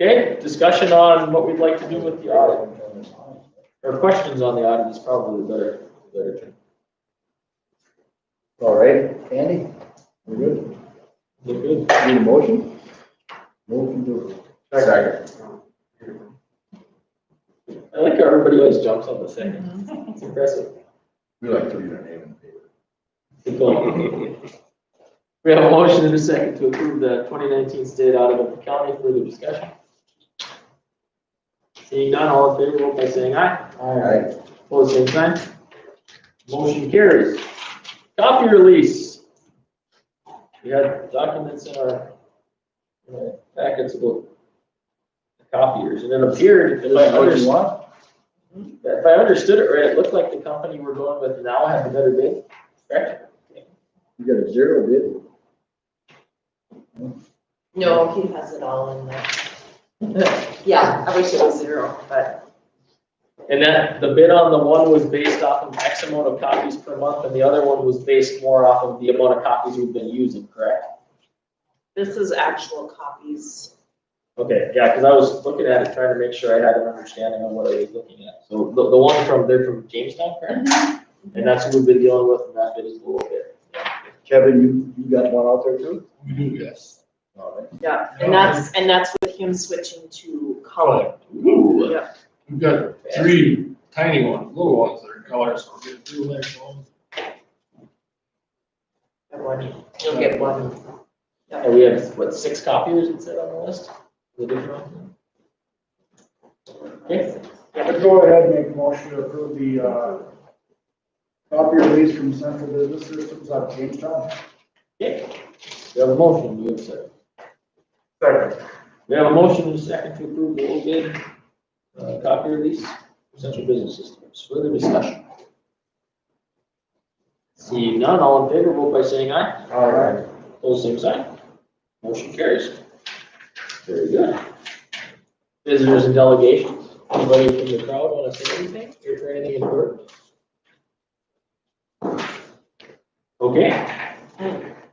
Okay, discussion on what we'd like to do with the audit, or questions on the audit is probably the better, better term. All right, Andy, we're good. Look good. Need a motion? Motion to. Second. I like how everybody always jumps on the second. It's impressive. We like to read our name in the paper. Good going. We have a motion and a second to approve the twenty nineteen state audit of the county. Further discussion? Seeing none, all in favor, vote by saying aye. Aye. Opposed, same sign. Motion carries. Copy release. We had documents in our in our packets about the copiers, and it appeared, if I understood want? If I understood it right, it looked like the company we're going with now had a better bid, correct? You got a zero bid. No, he has it all in there. Yeah, I wish it was zero, but And that, the bid on the one was based off of X amount of copies per month, and the other one was based more off of the amount of copies we've been using, correct? this is actual copies. Okay, yeah, because I was looking at it, trying to make sure I had an understanding of what I was looking at. So the, the one from, they're from Jamestown, correct? And that's who we've been dealing with, and that bid is a little bit. Kevin, you, you got one out there too? We do, yes. All um, right. Yeah, and that's, and that's with him switching to color. Ooh, Yeah. we've got three tiny ones, little ones that are colors, so we're getting two of those. And one, you'll get one. And we have, what, six copiers it said on the list? The different one? Okay. I'd go ahead and make a motion to approve the, uh, copy release from Central Business Systems out of Jamestown. Okay, we have a motion, you have a second. Second. We have a motion and a second to approve the low bid, uh, copy release, for central business systems, further discussion. Seeing none, all in favor, vote by saying aye, All right. All same sign, motion carries. Very good. Visitors and delegations, anybody from the crowd wanna say anything, or for anything important? Okay,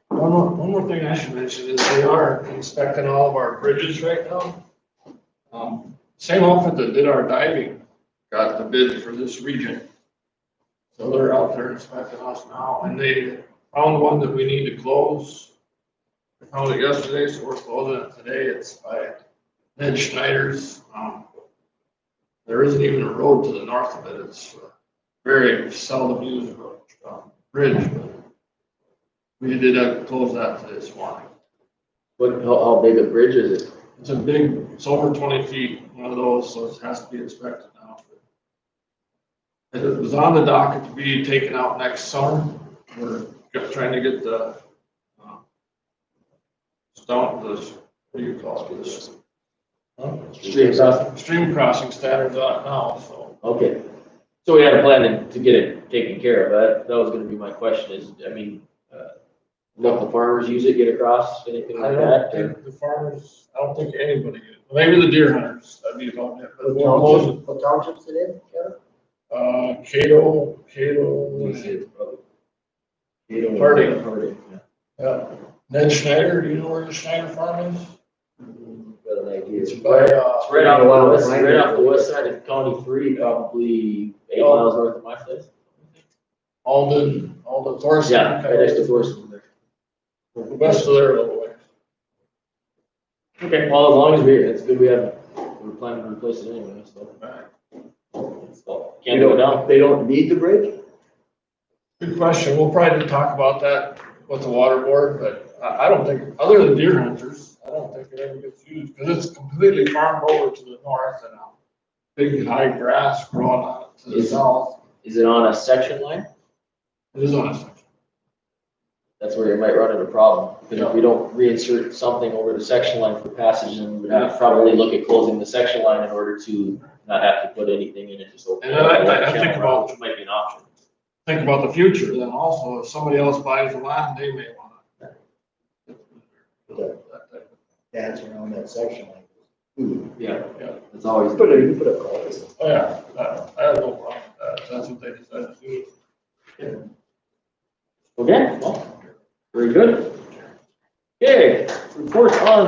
One more, one more thing I should mention is they are inspecting all of our bridges right now. Um, Same outfit that did our diving got the bid for this region. So they're out there inspecting us now and they found one that we need to close. We Found it yesterday, so we're closing it today. It's by Ned Schneider's. Um, There isn't even a road to the north of it. It's a very seldom used road, um, bridge, but we did uh, close that to this morning. what, how, how big a bridge is it? It's a big, it's over twenty feet, one of those, so it has to be inspected now. It was on the docket to be taken out next summer. We're just trying to get the uh, stump, the, what do you call it, this? Street crossing? Stream crossing standards on it now, so. Okay, so we had a plan to- to get it taken care of, that, that was gonna be my question is, I mean, uh, local farmers use it, get across, anything I like don't that? or- think the farmers, I don't think anybody, maybe the deer hunters, that'd be about it. but we're closing. What township's it in, Kevin? Uh, Cato, Cato, Harding. Harding, yeah. yeah, Ned Schneider, do you know where the Schneider farm is? Got an idea. It's by, uh, It's right off Wow, the west, right right there. off the west side of County Three, probably eight Oh. miles north of my place. Alden, Alden Thorson. Yeah, right next to Thorson there. West of there a little way. Okay, well, as long as we, it's good we have, we're planning to replace it anyway, so, so, can't You go don't- down. They don't need the bridge? Good question. We'll probably talk about that with the water board, but I, I don't think, other than deer hunters, I don't think it ever gets used, because it's completely farmed over to the north and uh, big high grass growing on it to the Is- south. Is it on a section line? It is on a section. that's where you might run into a problem. Because if we don't reinsert something over the section line for passage, then we'd have to probably look at closing the section line in order to not have to put anything in it, just open. And then I- I- I up the think channel, about- Which might be an option. Think about the future then also, if somebody else buys the land, they may want to. That's around that section. like, ooh. Yeah, Yeah. it's always. You put a, you put a culvert. Oh, yeah, that- I have no problem with that. That's what they decided to do. Okay, well, very good. Okay, report on